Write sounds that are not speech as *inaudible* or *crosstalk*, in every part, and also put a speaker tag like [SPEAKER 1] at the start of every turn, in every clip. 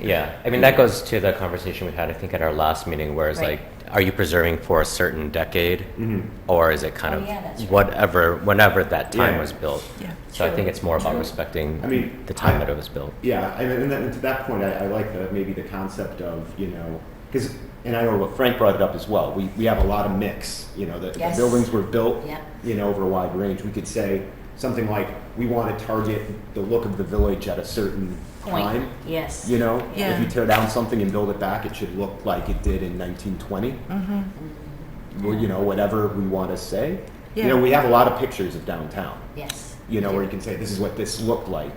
[SPEAKER 1] Yeah, I mean, that goes to the conversation we had, I think, at our last meeting, where it's
[SPEAKER 2] Right.
[SPEAKER 1] like, are you preserving for a certain decade?
[SPEAKER 3] Mm-hmm.
[SPEAKER 1] Or is it kind
[SPEAKER 2] Oh, yeah, that's
[SPEAKER 1] of
[SPEAKER 2] right.
[SPEAKER 1] whatever, whenever that time
[SPEAKER 3] Yeah.
[SPEAKER 1] was built?
[SPEAKER 4] Yeah.
[SPEAKER 1] So I
[SPEAKER 2] True.
[SPEAKER 1] think it's more about
[SPEAKER 2] True.
[SPEAKER 1] respecting
[SPEAKER 3] I mean,
[SPEAKER 1] the time
[SPEAKER 3] I-
[SPEAKER 1] that it was built.
[SPEAKER 3] Yeah, I mean, and, then to that point, I, I like the maybe the concept of you know because and I know what Frank brought it up as well. We we have a lot of mix. You know, the,
[SPEAKER 2] Yes.
[SPEAKER 3] the buildings were built
[SPEAKER 2] Yeah.
[SPEAKER 3] you know over a wide range. We could say something like we want to target the look of the village at a certain
[SPEAKER 2] Point,
[SPEAKER 3] time.
[SPEAKER 2] yes.
[SPEAKER 3] You know,
[SPEAKER 4] Yeah.
[SPEAKER 3] if you tear down something and build it back, it should look like it did in 1920.
[SPEAKER 4] Mm-hmm.
[SPEAKER 3] Well, you know, whatever we want to say. You know,
[SPEAKER 4] Yeah.
[SPEAKER 3] we have a lot of pictures of downtown.
[SPEAKER 2] Yes.
[SPEAKER 3] You know, where you can say this is what this looked like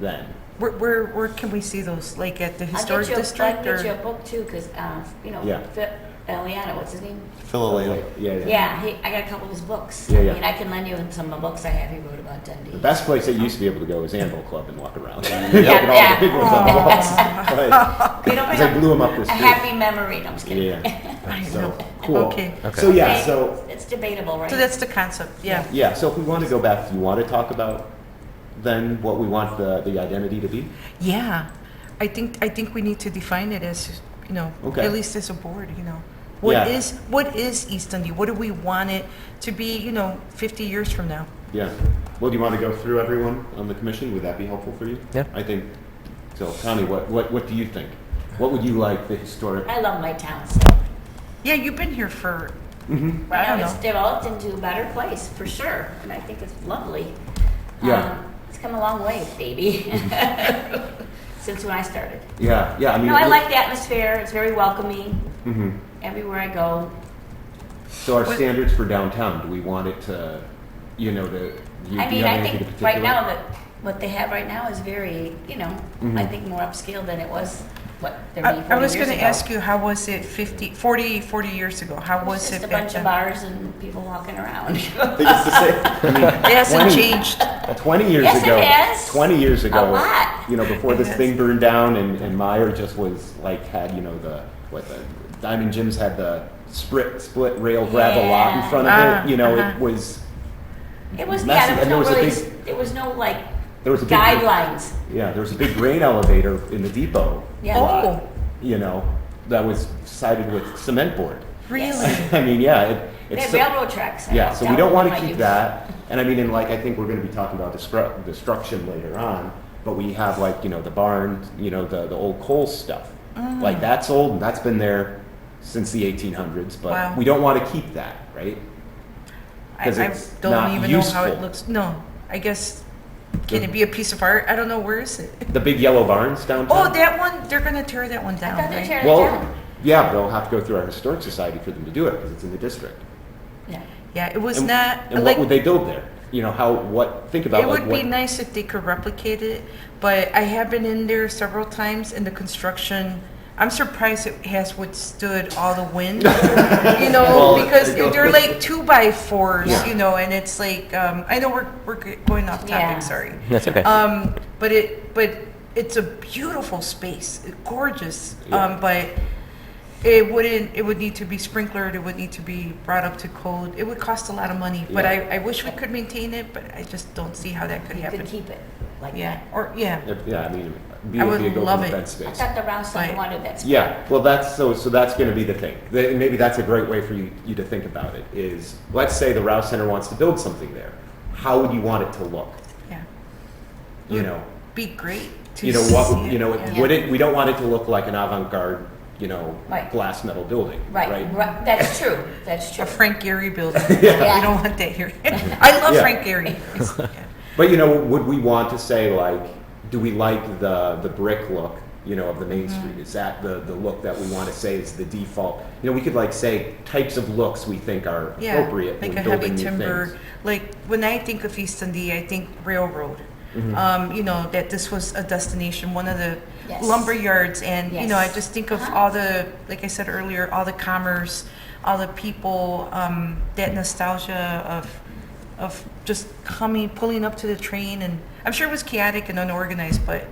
[SPEAKER 3] then.
[SPEAKER 4] Where, where, where can we see those? Like at the
[SPEAKER 2] I'll get
[SPEAKER 4] historic
[SPEAKER 2] you, a- I'll
[SPEAKER 4] district
[SPEAKER 2] get you a
[SPEAKER 4] or?
[SPEAKER 2] book too, because, you know,
[SPEAKER 3] Yeah.
[SPEAKER 2] Phil- Eliana, what's his name?
[SPEAKER 3] Philadelphia. Yeah, yeah.
[SPEAKER 2] Yeah, he, I got a couple of his books.
[SPEAKER 3] Yeah, yeah.
[SPEAKER 2] I mean, I can lend you some of the books I have he wrote about Dundee.
[SPEAKER 3] The best place I used to be able to go was Anvil Club and walk around. *laughs*
[SPEAKER 2] Yeah, yeah.
[SPEAKER 3] Look at all the big ones on the walls.
[SPEAKER 2] *laughs*
[SPEAKER 3] *laughs* Right.
[SPEAKER 2] You know,
[SPEAKER 3] 'Cause I blew 'em up this
[SPEAKER 2] A
[SPEAKER 3] week.
[SPEAKER 2] happy memory, no, I'm just kidding. *laughs*
[SPEAKER 3] Yeah.
[SPEAKER 4] I
[SPEAKER 3] So,
[SPEAKER 4] know.
[SPEAKER 3] cool.
[SPEAKER 4] Okay.
[SPEAKER 1] Okay.
[SPEAKER 3] So, yeah,
[SPEAKER 2] Okay,
[SPEAKER 3] so,
[SPEAKER 2] It's debatable, right?
[SPEAKER 4] So that's the concept, yeah.
[SPEAKER 3] yeah, so if we want to go back, do you want to talk about then what we want the, the identity to be?
[SPEAKER 4] Yeah. I think, I think we need to define it as, you know,
[SPEAKER 3] Okay.
[SPEAKER 4] at least as a board, you know. What
[SPEAKER 3] Yeah.
[SPEAKER 4] is, what is East Dundee? What do we want it to be, you know, 50 years from now?
[SPEAKER 3] Yeah. Well, do you want to go through everyone on the commission? Would that be helpful for you?
[SPEAKER 1] Yeah.
[SPEAKER 3] I think, so Connie, what, what, what do you think? What would you like the historic?
[SPEAKER 2] I love my town, so.
[SPEAKER 4] Yeah, you've been here for,
[SPEAKER 3] Mhm.
[SPEAKER 4] I
[SPEAKER 2] Now
[SPEAKER 4] don't
[SPEAKER 2] it's
[SPEAKER 4] know.
[SPEAKER 2] developed into a better place, for sure, and I think it's lovely.
[SPEAKER 3] Yeah.
[SPEAKER 2] Um, It's come a long way,
[SPEAKER 3] *laughs*
[SPEAKER 2] baby, *laughs* since when I started.
[SPEAKER 3] Yeah, yeah, I mean.
[SPEAKER 2] No, I
[SPEAKER 3] it-
[SPEAKER 2] like the atmosphere, it's very welcoming
[SPEAKER 3] Mhm.
[SPEAKER 2] everywhere I go.
[SPEAKER 3] So our
[SPEAKER 4] What-
[SPEAKER 3] standards for downtown, do we want it to, you know, to, do you
[SPEAKER 2] I
[SPEAKER 3] do you
[SPEAKER 2] mean,
[SPEAKER 3] have
[SPEAKER 2] I
[SPEAKER 3] anything in
[SPEAKER 2] think
[SPEAKER 3] particular?
[SPEAKER 2] right now that, what they have right now is very, you know, I
[SPEAKER 3] Mm-hmm.
[SPEAKER 2] think more upscale than it was, what,
[SPEAKER 4] I
[SPEAKER 2] 30,
[SPEAKER 4] I
[SPEAKER 2] 40
[SPEAKER 4] was
[SPEAKER 2] years
[SPEAKER 4] going to
[SPEAKER 2] ago.
[SPEAKER 4] ask you, how was it 50, 40, 40 years ago? How
[SPEAKER 2] It's
[SPEAKER 4] was it
[SPEAKER 2] Just a
[SPEAKER 4] back
[SPEAKER 2] bunch of
[SPEAKER 4] then?
[SPEAKER 2] bars and people walking around. *laughs*
[SPEAKER 3] *laughs* I think it's the same.
[SPEAKER 4] It hasn't
[SPEAKER 3] 20.
[SPEAKER 4] changed.
[SPEAKER 3] I mean, Twenty years
[SPEAKER 2] Yes, it
[SPEAKER 3] ago.
[SPEAKER 2] has.
[SPEAKER 3] Twenty years
[SPEAKER 2] A
[SPEAKER 3] ago.
[SPEAKER 2] lot.
[SPEAKER 3] You know, before
[SPEAKER 4] It
[SPEAKER 3] this
[SPEAKER 4] has.
[SPEAKER 3] thing burned down, and, and Meyer just was like had you know the what the Diamond Jim's had the split split rail gravel lot in
[SPEAKER 2] Yeah.
[SPEAKER 3] front of
[SPEAKER 4] Ah,
[SPEAKER 3] it. You know,
[SPEAKER 4] uh-huh.
[SPEAKER 3] it was
[SPEAKER 2] It was,
[SPEAKER 3] Messy,
[SPEAKER 2] yeah,
[SPEAKER 3] and
[SPEAKER 2] there was no
[SPEAKER 3] there was a
[SPEAKER 2] really, there was no like
[SPEAKER 3] there was a big
[SPEAKER 2] guidelines.
[SPEAKER 3] Yeah, there was a big grain elevator in the depot.
[SPEAKER 2] Yeah.
[SPEAKER 3] lot,
[SPEAKER 4] Oh.
[SPEAKER 3] You know, that was sided with cement board.
[SPEAKER 4] Really?
[SPEAKER 3] *laughs* I mean, yeah, it,
[SPEAKER 2] They
[SPEAKER 3] it's
[SPEAKER 2] had
[SPEAKER 3] so-
[SPEAKER 2] railroad tracks. I
[SPEAKER 3] Yeah,
[SPEAKER 2] was
[SPEAKER 3] so we don't
[SPEAKER 2] down
[SPEAKER 3] want
[SPEAKER 2] in my
[SPEAKER 3] to keep
[SPEAKER 2] youth.
[SPEAKER 3] that. And I mean, and like, I think we're going to be talking about destru- destruction later on, but we have like, you know, the barn, you know, the, the old coal stuff.
[SPEAKER 4] Mm.
[SPEAKER 3] Like, that's old and that's been there since the 1800s,
[SPEAKER 4] Wow.
[SPEAKER 3] but we don't want to keep that, right?
[SPEAKER 4] I,
[SPEAKER 3] 'Cause
[SPEAKER 4] I
[SPEAKER 3] it's
[SPEAKER 4] don't
[SPEAKER 3] not
[SPEAKER 4] even know how it
[SPEAKER 3] useful.
[SPEAKER 4] looks. No, I guess can
[SPEAKER 3] Yeah.
[SPEAKER 4] it be a piece of art? I don't know where is it.
[SPEAKER 3] The big yellow barns downtown.
[SPEAKER 4] *laughs* Oh, that one they're gonna tear that one down.
[SPEAKER 2] I thought they
[SPEAKER 4] right?
[SPEAKER 2] tear it
[SPEAKER 3] Well,
[SPEAKER 2] down.
[SPEAKER 3] yeah, they'll have to go through our historic society for them to do it because it's in the district.
[SPEAKER 2] Yeah.
[SPEAKER 4] yeah, it was
[SPEAKER 3] And-
[SPEAKER 4] not
[SPEAKER 3] And
[SPEAKER 4] like
[SPEAKER 3] what would they build there? You know, how, what, think about
[SPEAKER 4] it
[SPEAKER 3] like
[SPEAKER 4] would
[SPEAKER 3] what.
[SPEAKER 4] be nice if they could replicate it, but I have been in there several times in the construction. I'm surprised it has withstood all the
[SPEAKER 3] *laughs*
[SPEAKER 4] wind, you know,
[SPEAKER 3] Well,
[SPEAKER 4] because
[SPEAKER 3] it goes-
[SPEAKER 4] they're like two by fours,
[SPEAKER 3] Yeah.
[SPEAKER 4] you know, and it's like um, I know we're we're g- going off topic.
[SPEAKER 2] Yeah.
[SPEAKER 3] *laughs*
[SPEAKER 4] Sorry.
[SPEAKER 1] That's okay.
[SPEAKER 2] Uh,
[SPEAKER 4] Um, but it, but it's a beautiful space, gorgeous.
[SPEAKER 3] Yeah.
[SPEAKER 4] Um, but it wouldn't, it would need to be sprinklered, it would need to be brought up to code. It would cost a lot of money, but
[SPEAKER 3] Yeah.
[SPEAKER 4] I, I wish we could maintain it, but I just don't see how that could
[SPEAKER 2] You could
[SPEAKER 4] happen.
[SPEAKER 2] keep it like
[SPEAKER 4] Yeah,
[SPEAKER 2] that.
[SPEAKER 4] or, yeah,
[SPEAKER 3] Yeah, I mean, be
[SPEAKER 4] I
[SPEAKER 3] a
[SPEAKER 4] would
[SPEAKER 3] big
[SPEAKER 4] love
[SPEAKER 3] open
[SPEAKER 4] it.
[SPEAKER 3] event
[SPEAKER 2] I
[SPEAKER 3] space.
[SPEAKER 2] thought the Rouseland
[SPEAKER 4] Right.
[SPEAKER 2] wanted that.
[SPEAKER 3] Yeah, well, that's so. So that's going to be the thing. Th- Maybe that's a great way for you, you to think about it. Is let's say the Rouse Center wants to build something there. How would you want it to look?
[SPEAKER 4] yeah.
[SPEAKER 3] You know,
[SPEAKER 4] Be great to see
[SPEAKER 3] you know what?
[SPEAKER 4] it,
[SPEAKER 3] You know,
[SPEAKER 4] yeah.
[SPEAKER 3] would it? We don't want it to look like an avant-garde, you know,
[SPEAKER 2] Right.
[SPEAKER 3] glass metal building.
[SPEAKER 2] Right, right, that's true, that's true.
[SPEAKER 4] *laughs* A Frank
[SPEAKER 3] *laughs*
[SPEAKER 4] Gehry building. We don't want that here. I love
[SPEAKER 3] Yeah.
[SPEAKER 4] Frank Gehry.
[SPEAKER 3] *laughs*
[SPEAKER 4] It's- yeah.
[SPEAKER 3] But you know, would we want to say like, do we like the the brick look, you know, of the main
[SPEAKER 4] Mm-hmm.
[SPEAKER 3] street? Is that the the look that we want to say is the default? You know, we could like say types of looks we think are
[SPEAKER 4] Yeah,
[SPEAKER 3] appropriate
[SPEAKER 4] like
[SPEAKER 3] when
[SPEAKER 4] a
[SPEAKER 3] building
[SPEAKER 4] heavy
[SPEAKER 3] new
[SPEAKER 4] timber.
[SPEAKER 3] things.
[SPEAKER 4] Like when I think of East Dundee, I think railroad.
[SPEAKER 3] Mm-hmm.
[SPEAKER 4] Um, you know that this was a destination, one of the
[SPEAKER 2] Yes.
[SPEAKER 4] lumber yards, and you know I
[SPEAKER 2] Yes.
[SPEAKER 4] just think of
[SPEAKER 2] Uh-huh.
[SPEAKER 4] all the, like I said earlier, all the commerce, all the people, um, that nostalgia of, of just coming, pulling up to the train, and I'm sure it was chaotic and unorganized, but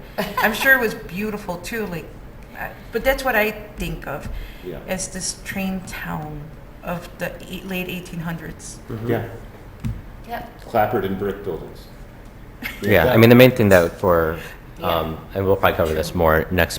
[SPEAKER 4] I'm sure it was beautiful too. Like, I- but that's what I think of
[SPEAKER 3] Yeah.
[SPEAKER 4] as this train town of the eight- late 1800s.
[SPEAKER 3] Yeah.
[SPEAKER 2] Yep.
[SPEAKER 3] clapboard and brick buildings.
[SPEAKER 1] Yeah, I mean, the main thing that for, um, and we'll probably cover this more next